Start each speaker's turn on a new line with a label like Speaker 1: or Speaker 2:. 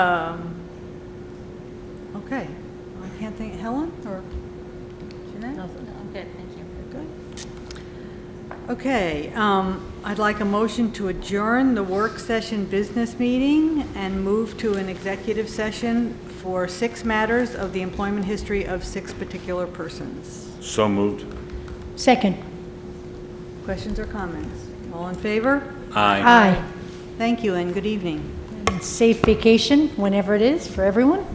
Speaker 1: Okay, I can't think, Helen or Jeanette?
Speaker 2: Nothing, I'm good, thank you.
Speaker 1: Good. Okay, um, I'd like a motion to adjourn the work session business meeting and move to an executive session for six matters of the employment history of six particular persons.
Speaker 3: So moved.
Speaker 4: Second.
Speaker 1: Questions or comments? All in favor?
Speaker 3: Aye.
Speaker 4: Aye.
Speaker 1: Thank you and good evening.
Speaker 4: And Safe vacation, whenever it is, for everyone.